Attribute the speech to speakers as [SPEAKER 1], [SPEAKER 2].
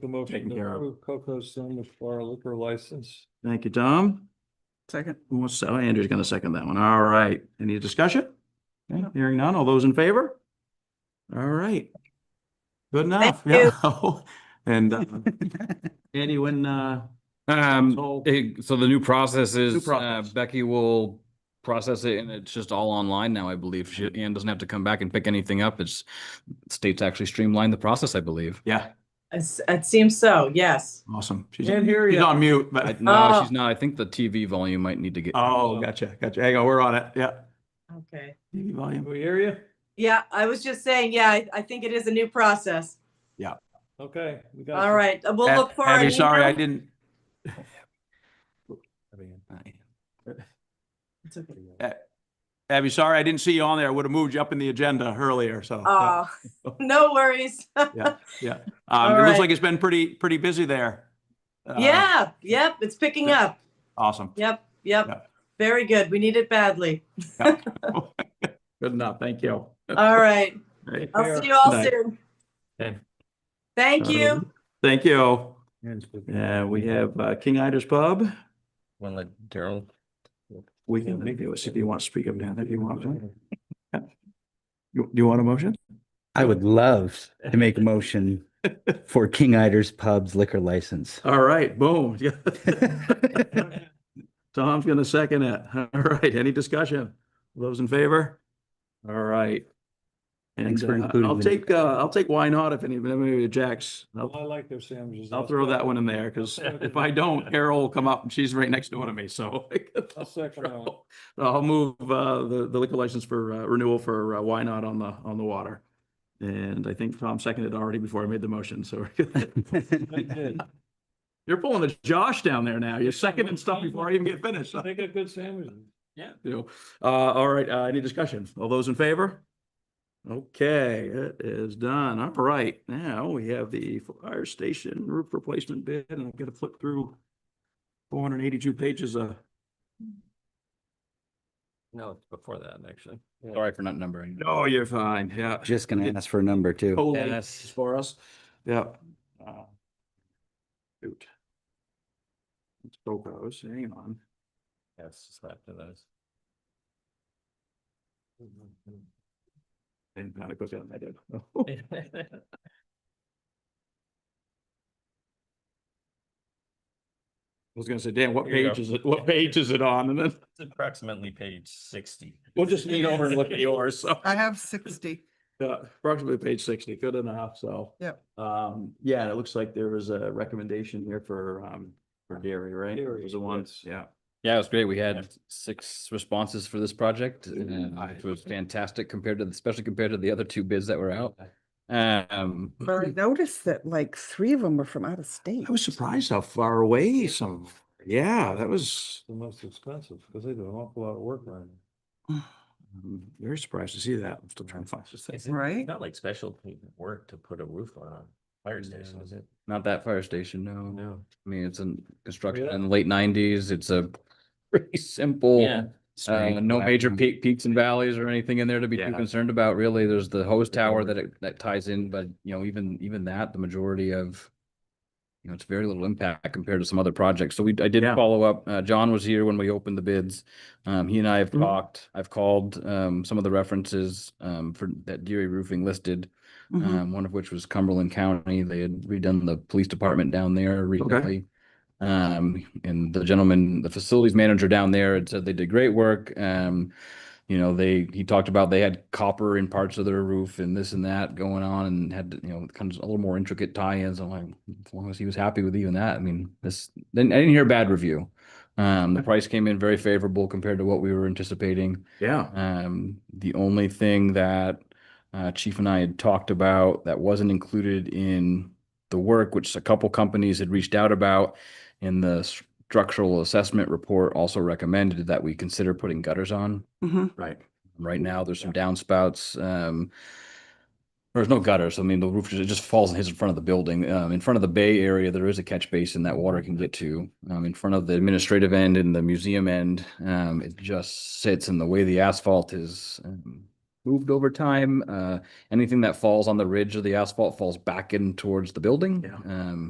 [SPEAKER 1] The motion
[SPEAKER 2] Taken
[SPEAKER 1] to
[SPEAKER 2] care of.
[SPEAKER 1] approve Coco's Zone for our liquor license.
[SPEAKER 2] Thank you, Tom.
[SPEAKER 3] Second.
[SPEAKER 2] What's, oh, Andrew's gonna second that one. All right. Any discussion? Okay, Hearing none. All those in favor? All right. Good enough. Yeah. And uh, Andy, when, uh,
[SPEAKER 4] Um,
[SPEAKER 2] So-
[SPEAKER 4] it- so the new process is uh,
[SPEAKER 2] process.
[SPEAKER 4] Becky will process it and it's just all online now, I believe. She, Ann doesn't have to come back and pick anything up. It's states actually streamlined the process, I believe.
[SPEAKER 2] yeah,
[SPEAKER 3] It's- It seems so, yes.
[SPEAKER 2] awesome. She's
[SPEAKER 1] Can't hear
[SPEAKER 2] she's
[SPEAKER 1] ya.
[SPEAKER 2] on mute,
[SPEAKER 4] I-
[SPEAKER 2] but,
[SPEAKER 4] No,
[SPEAKER 3] Oh.
[SPEAKER 4] she's not. I think the TV volume might need to get.
[SPEAKER 2] oh, gotcha, gotcha. Hang on, we're on it. Yeah.
[SPEAKER 3] Okay.
[SPEAKER 2] TV
[SPEAKER 1] Can
[SPEAKER 2] volume.
[SPEAKER 1] we hear you?
[SPEAKER 3] Yeah, I was just saying, yeah, I, I think it is a new process.
[SPEAKER 1] Okay. we got
[SPEAKER 3] All
[SPEAKER 1] you.
[SPEAKER 3] right, uh, we'll look for.
[SPEAKER 2] Abby,
[SPEAKER 3] an
[SPEAKER 2] sorry, I
[SPEAKER 3] email.
[SPEAKER 2] didn't,
[SPEAKER 3] It's okay.
[SPEAKER 2] Abby, sorry, I didn't see you on there. I would have moved you up in the agenda earlier, so.
[SPEAKER 3] Oh, no worries.
[SPEAKER 2] Uh, Um, it
[SPEAKER 3] all
[SPEAKER 2] looks
[SPEAKER 3] right.
[SPEAKER 2] like it's been pretty, pretty busy there. Uh,
[SPEAKER 3] Yeah, yep, it's picking
[SPEAKER 2] yeah.
[SPEAKER 3] up.
[SPEAKER 2] Awesome.
[SPEAKER 3] Yep,
[SPEAKER 2] Yeah.
[SPEAKER 3] yep. Very good. We need it badly.
[SPEAKER 2] Good enough. Thank you.
[SPEAKER 3] All right.
[SPEAKER 2] Great.
[SPEAKER 3] I'll see you all
[SPEAKER 2] Night.
[SPEAKER 3] soon.
[SPEAKER 1] Okay.
[SPEAKER 3] Thank you.
[SPEAKER 2] Thank you.
[SPEAKER 1] Yeah.
[SPEAKER 2] Uh, we have uh, King Ida's Pub.
[SPEAKER 5] Wanna let Daryl,
[SPEAKER 2] We can review it if you want to speak up now, if you want. to. You- Do you want a motion?
[SPEAKER 5] I would love to make a motion for King Iders Pub's liquor license.
[SPEAKER 2] All right, boom. Tom's gonna second it. All right, any discussion? Those in favor? All right. And
[SPEAKER 5] Thanks for
[SPEAKER 2] uh,
[SPEAKER 5] including
[SPEAKER 2] I'll
[SPEAKER 5] me.
[SPEAKER 2] take, uh, I'll take why not if any, maybe Jack's. I'll-
[SPEAKER 1] I like their sandwiches.
[SPEAKER 2] I'll throw that one in there because if I don't, Carol will come up and she's right next door to me, so.
[SPEAKER 1] I'll second that one.
[SPEAKER 2] I'll move uh the the liquor license for uh, renewal for uh, Why Not on the on the water. And I think Tom seconded already before I made the motion, so.
[SPEAKER 1] They did.
[SPEAKER 2] You're pulling a Josh down there now. You're seconding stuff before I even get finished.
[SPEAKER 1] They got good sandwiches.
[SPEAKER 2] Yeah. You know, uh, all right, uh, any discussion? All those in favor? Okay, it is done. All right, now we have the fire station roof replacement bid and I've got to flip through four hundred and eighty-two pages of,
[SPEAKER 5] No, it's before that, actually.
[SPEAKER 4] Sorry for not numbering.
[SPEAKER 2] oh, you're fine, yeah.
[SPEAKER 5] Just gonna ask for a number
[SPEAKER 4] Oh,
[SPEAKER 5] too.
[SPEAKER 2] Totally
[SPEAKER 4] Yes.
[SPEAKER 2] for us, yeah. Uh, Shoot. It's Boco's, hang on.
[SPEAKER 5] Yes, just after those.
[SPEAKER 2] And kind of goes down, I did. I was gonna say, Dan, what
[SPEAKER 5] Here you go.
[SPEAKER 2] page is it, what page is it on? And then
[SPEAKER 5] It's approximately page sixty.
[SPEAKER 2] we'll just lean over and look at yours, so.
[SPEAKER 6] I have sixty.
[SPEAKER 2] Yeah, approximately page sixty, good enough, so.
[SPEAKER 6] Yep.
[SPEAKER 2] Um, yeah, and it looks like there was a recommendation here for, um, for dairy, right?
[SPEAKER 1] Dairy,
[SPEAKER 2] Was the ones,
[SPEAKER 1] yes.
[SPEAKER 2] yeah.
[SPEAKER 4] Yeah, it was great. We had six responses for this project and
[SPEAKER 2] I-
[SPEAKER 4] it was fantastic compared to, especially compared to the other two bids that were out. Um,
[SPEAKER 6] But I noticed that like three of them were from out of state.
[SPEAKER 2] I was surprised how far away some, yeah, that was,
[SPEAKER 1] The most expensive because they do an awful lot of work around here.
[SPEAKER 2] I'm very surprised to see that. I'm still trying to find this thing.
[SPEAKER 6] Right?
[SPEAKER 7] Not like special work to put a roof on a fire station, is it?
[SPEAKER 4] not that fire station, no.
[SPEAKER 7] No.
[SPEAKER 4] I mean, it's in construction
[SPEAKER 1] Yeah.
[SPEAKER 4] in the late nineties. It's a pretty simple.
[SPEAKER 7] Yeah.
[SPEAKER 4] Uh, no major
[SPEAKER 5] peak.
[SPEAKER 4] peak, peaks and valleys or anything in there to be too
[SPEAKER 2] Yeah.
[SPEAKER 4] concerned about, really. There's the hose
[SPEAKER 2] Yeah,
[SPEAKER 4] tower
[SPEAKER 2] we're-
[SPEAKER 4] that it, that ties in, but you know, even, even that, the majority of. You know, it's very little impact compared to some other projects. So we, I did
[SPEAKER 2] Yeah.
[SPEAKER 4] follow up. Uh, John was here when we opened the bids. Um, he and I have
[SPEAKER 2] Mhm.
[SPEAKER 4] talked, I've called, um, some of the references, um, for that Deary Roofing listed.
[SPEAKER 6] Mhm.
[SPEAKER 4] Um, one of which was Cumberland County. They had redone the police department down there recently. Um, and the gentleman, the facilities manager down there had said they did great work. Um, you know, they, he talked about they had copper in parts of their roof and this and that going on and had, you know, kind of a little more intricate tie-ins. I'm like, as long as he was happy with even that, I mean, this, then I didn't hear a bad review. Um, the price came in very favorable compared to what we were anticipating.
[SPEAKER 2] Yeah.
[SPEAKER 4] Um, the only thing that uh, Chief and I had talked about that wasn't included in the work, which a couple companies had reached out about, and the structural assessment report also recommended that we consider putting gutters on.
[SPEAKER 6] Mhm.
[SPEAKER 2] Right.
[SPEAKER 4] Right now, there's some downspouts. Um, there's no gutters. I mean, the roof just, it just falls and hits in front of the building. Um, in front of the bay area, there is a catch basin that water can get to. Um, in front of the administrative end and the museum end, um, it just sits and the way the asphalt is um, moved over time, uh, anything that falls on the ridge of the asphalt falls back in towards the building.
[SPEAKER 2] Yeah.
[SPEAKER 4] Um,